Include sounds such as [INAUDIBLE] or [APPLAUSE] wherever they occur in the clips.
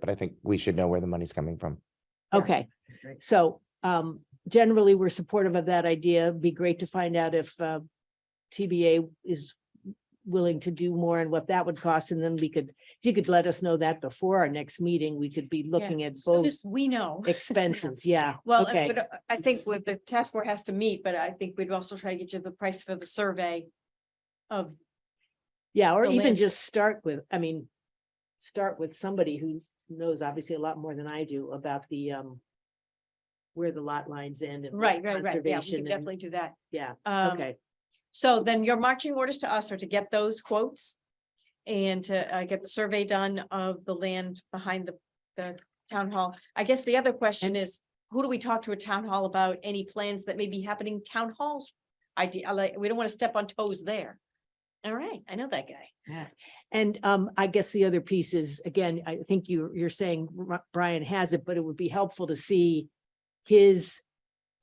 but I think we should know where the money's coming from. Yeah. Okay, Great. so um generally, we're supportive of that idea. It'd Be great to find out if uh TBA is willing to do more and what that would cost, and then we could, if you could let us know that before our next meeting, we could be looking at So both just [LAUGHS] we know. expenses, yeah. Well, I- Okay, but uh, I think with the task force has to meet, but I think we'd also try to get you the price for the survey of, yeah, or the even land- just start with, I mean, start with somebody who knows obviously a lot more than I do about the um where the lot lines end and. what's right, right, right. Yeah, we conservation could and- definitely do that. Yeah, Um, okay. So then your marching orders to us are to get those quotes and to uh, get the survey done of the land behind the, the town hall. I guess the other question is, who do we talk to at town hall about any plans that may be happening town halls? Idea, like, we don't want to step on toes there. All right, I know that guy. And um, I guess the other piece is, again, I think you, you're saying Ri- Brian has it, but it would be helpful to see his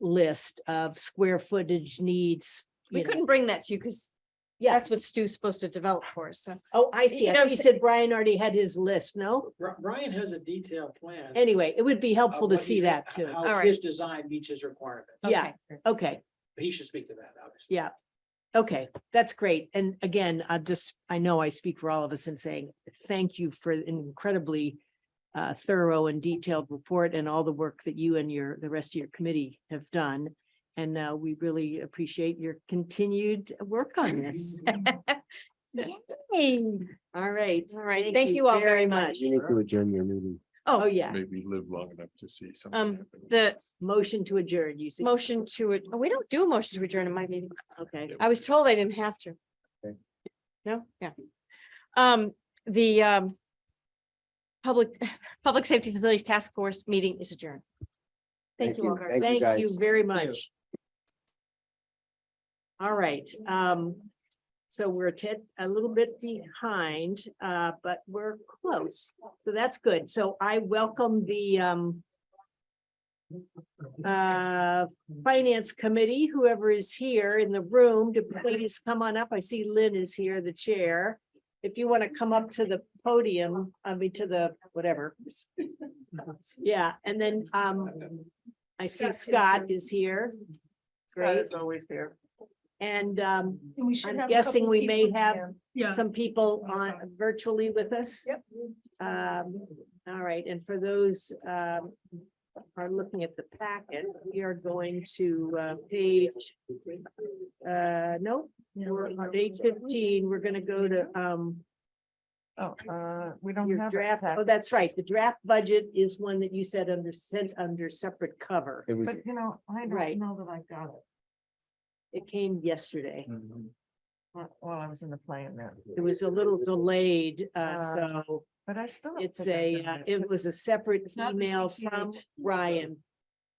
list of square footage needs. We you know. couldn't bring that to you because Yeah. that's what Stu's supposed to develop for us, so. Oh, I see. you I know, thought you s- said Brian already had his list, no? Bri- Brian has a detailed plan. of Anyway, it would be helpful to what see he's- that too. How All right. his design meets his requirements. Yeah. Okay. Okay, He should speak to that, obviously. yeah. Okay, that's great. And again, I just, I know I speak for all of us in saying thank you for an incredibly uh, thorough and detailed report and all the work that you and your, the rest of your committee have done. And uh, we really appreciate your continued work on this. [LAUGHS] Yay. All right. All right, thank you all very much. You need to adjourn your meeting, Oh, Oh, yeah. maybe live long enough to see something. Um, happen. the Motion to adjourn, you see. motion to, ad- oh, we don't do a motion to adjourn in my meetings. Okay. I was told I didn't have to. Okay. No, yeah. Um, the um. Public, [LAUGHS] Public Safety Facilities Task Force meeting is adjourned. Thank Thank you you. all very much. Thank you, Thank you guys. very much. All right, um, so we're a tad, a little bit behind, uh, but we're close. So that's good. So I welcome the, um, uh, Finance Committee, whoever is here in the room, to please come on up. I see Lynn is here, the chair. If you want to come up to the podium, I mean, to the, whatever. Yeah, and then, um, I see Scott is here. Great. always there. And um, And we should I'm have a guessing couple we may people have here. Yeah. some people on virtually with us. Yep. Um, all right, and for those um are looking at the packet, we are going to uh page. Uh, no, we're on page fifteen, we're gonna go to um Oh, uh, we don't your have. a draft. Oh, packet. that's right, the draft budget is one that you said under sent under separate cover. It was. But you know, I Right. don't know that I got it. It came yesterday. wh- While I was in the plane there, It was a little delayed, uh Uh, so. but I still. don't It's think I a, got uh, it was a separate not the email 68. from Ryan.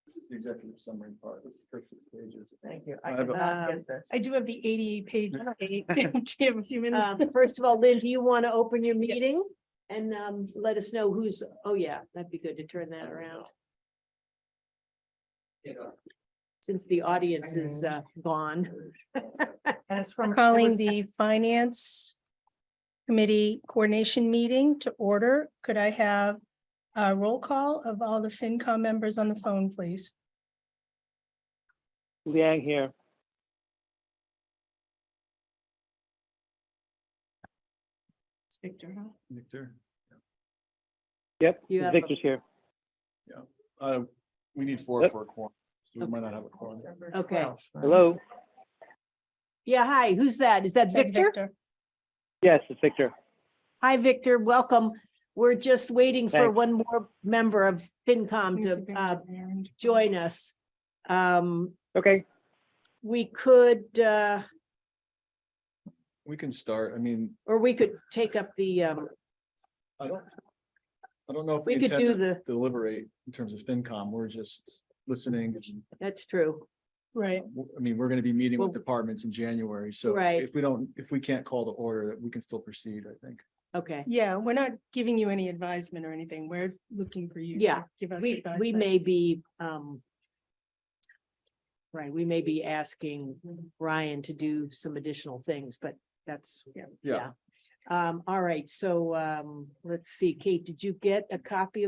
This is the executive summary part, this is first six pages. Thank you. I I have did a- not Um, get this. I do have the eighty-eight page. [LAUGHS] Do you have a few minutes? [LAUGHS] Um, first of all, Lynn, do you want to open your meeting? And, um, let us know who's, oh yeah, that'd be good to turn that around, since the audience is, uh, gone. And it's from. it Calling was- the Finance Committee Coordination Meeting to order. Could I have a roll call of all the FinCom members on the phone, please? Liang here. Victor, huh? Victor, Yep, You have a- Victor's here. uh, we need four Yep. for a quorum, so we might not have a quorum. December Okay. 12th, right? Hello? Yeah, hi, who's that? Is that That's Victor? Yes, it's Victor. Hi, Victor, welcome. We're just waiting for Thanks. one more member of FinCom to, uh, join us. Um, Okay, we could, uh, We can start, I mean, or we could take up the, um, I don't, I don't know if we we could intend do to the, deliberate in terms of FinCom, we're just listening. and that's true. Right. w- I mean, we're gonna be meeting Well- with departments in January, so Right. if we don't, if we can't call the order, we can still proceed, I think. Okay. Yeah, we're not giving you any advisement or anything. We're looking for you. to Yeah, Give us We, advice. we may be, um. Right, we may be asking Ryan to do some additional things, but that's, Yeah. Um, all right, so, um, let's see, Kate, did you get a copy